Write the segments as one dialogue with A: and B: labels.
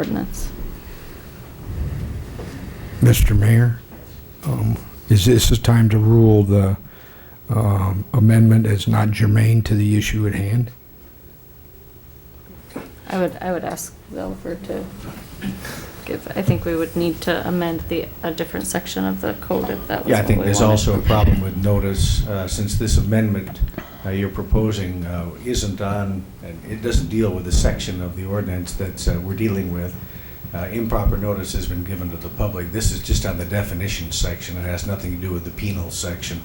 A: ordinance.
B: Mr. Mayor, um, is this the time to rule the um, amendment as not germane to the issue at hand?
A: I would, I would ask Oliver to give, I think we would need to amend the, a different section of the code if that was
C: Yeah, I
A: what we
C: think there's
A: wanted.
C: also a problem with notice, uh, since this amendment uh, you're proposing uh, isn't on, and it doesn't deal with the section of the ordinance that uh, we're dealing with. Uh, Improper notice has been given to the public. This is just on the definition section. It has nothing to do with the penal section.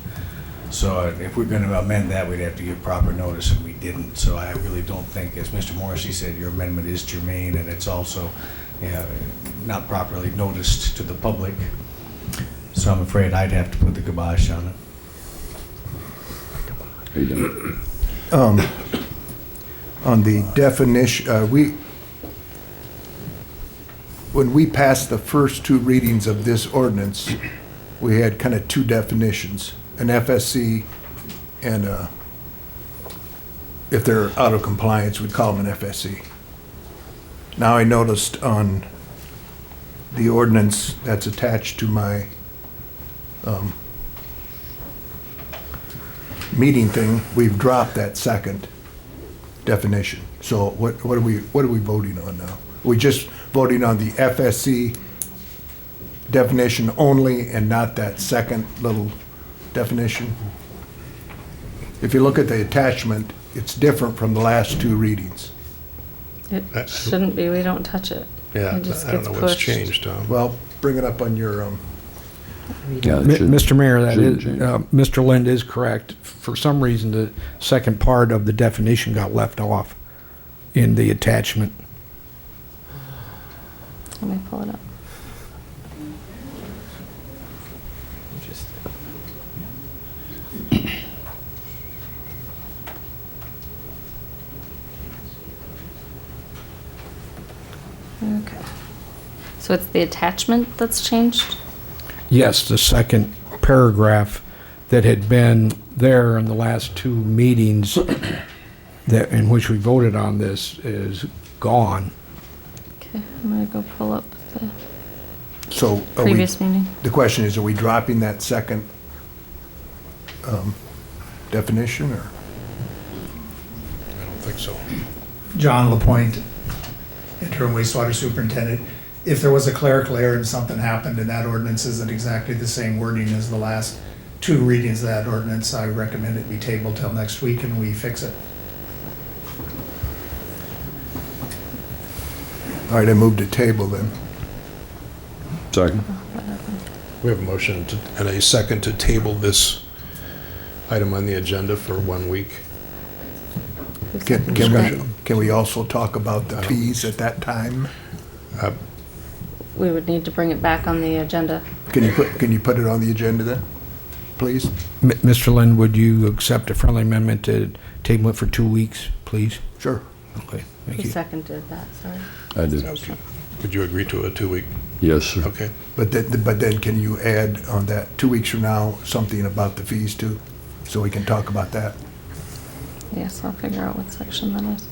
C: So uh, if we're going to amend that, we'd have to give proper notice, and we didn't. So I really don't think, as Mr. Morrissey said, your amendment is germane, and it's also uh, not properly noticed to the public. So I'm afraid I'd have to put the kibosh on it.
D: How you doing?
E: on the definition, uh, we, when we passed the first two readings of this ordinance, we had kind of two definitions, an FSC and a, if they're out of compliance, we'd call them an FSC. Now I noticed on the ordinance that's attached to my um, meeting thing, we've dropped that second definition. So what, what are we, what are we voting on now? we just voting on the FSC definition only and not that second little definition? If you look at the attachment, it's different from the last two readings.
A: It shouldn't be, we don't touch it.
F: Yeah,
A: It just
F: I don't
A: gets
F: know what's
A: pushed.
F: changed, Tom.
E: Well, bring it up on your, um,
D: Yeah,
B: Mi-
D: it should-
B: Mr. Mayor, that
D: shouldn't
B: is,
D: change.
B: uh, Mr. Lind is correct. For some reason, the second part of the definition got left off in the attachment.
A: Let me pull it up. Okay. So it's the attachment that's changed?
B: Yes, the second paragraph that had been there in the last two meetings that, in which we voted on this is gone.
A: Okay, I'm gonna go pull up the
E: so are Oh, we,
A: previous meeting.
E: the question is, are we dropping that second, um, definition or?
F: I don't think so.
G: John Lapointe, interim wastewater superintendent. If there was a clerical error and something happened and that ordinance isn't exactly the same wording as the last two readings of that ordinance, I recommend it be tabled till next week and we fix it.
E: All right, I moved to table then.
D: Second.
F: We have a motion to- and a second to table this item on the agenda for one week.
E: Can, can we, can we also talk about the fees at that time?
A: We would need to bring it back on the agenda.
E: Can you put, can you put it on the agenda then, please?
B: M- Mr. Lind, would you accept a friendly amendment to table it for two weeks, please?
E: Sure.
B: Okay, thank
A: Who
B: you.
A: seconded that, sorry?
D: I did.
F: Would you agree to a two-week?
D: Yes, sir.
F: Okay.
E: But then, but then can you add on that, two weeks from now, something about the fees too? So we can talk about that.
A: Yes, I'll figure out what section that is.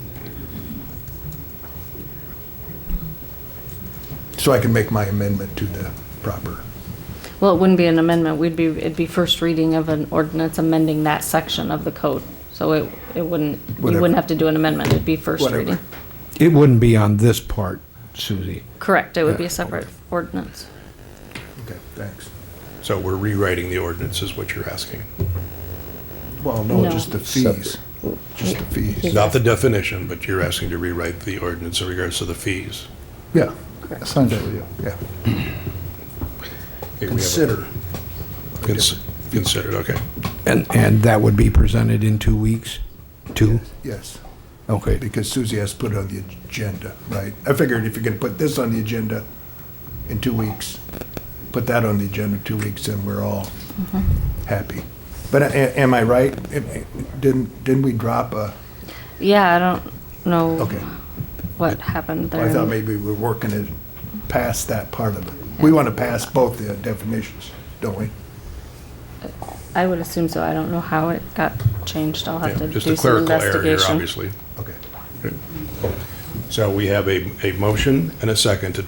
E: So I can make my amendment to the proper.
A: Well, it wouldn't be an amendment, we'd be, it'd be first reading of an ordinance amending that section of the code. So it, it wouldn't, you wouldn't
E: Whatever.
A: have to do an amendment, it'd be first
E: Whatever.
A: reading.
B: It wouldn't be on this part, Susie.
A: Correct, it would be a separate ordinance.
E: Okay, thanks.
F: So we're rewriting the ordinance is what you're asking.
E: Well, no,
A: No.
E: just the fees, just the fees.
F: Not the definition, but you're asking to rewrite the ordinance in regards to the fees.
E: Yeah,
A: Correct.
E: essentially, yeah.
F: Okay, we have a-
E: Consider.
F: Cons- Considered, okay.
B: And, and that would be presented in two weeks? Two?
E: Yes,
B: Okay.
E: because Susie has to put it on the agenda, right? I figured if you're gonna put this on the agenda in two weeks, put that on the agenda in two weeks, and we're all happy. But a- am I right? Didn't, didn't we drop a,
A: Yeah, I don't know
E: okay.
A: what happened
E: I thought
A: there.
E: maybe we were working it past that part of it. We want to pass both the definitions, don't we?
A: I would assume so, I don't know how it got changed, I'll have
F: Yeah,
A: to
F: Just a
A: do some
F: clerical error here,
A: investigation.
F: obviously.
E: Okay.
F: So we have a, a motion and a second to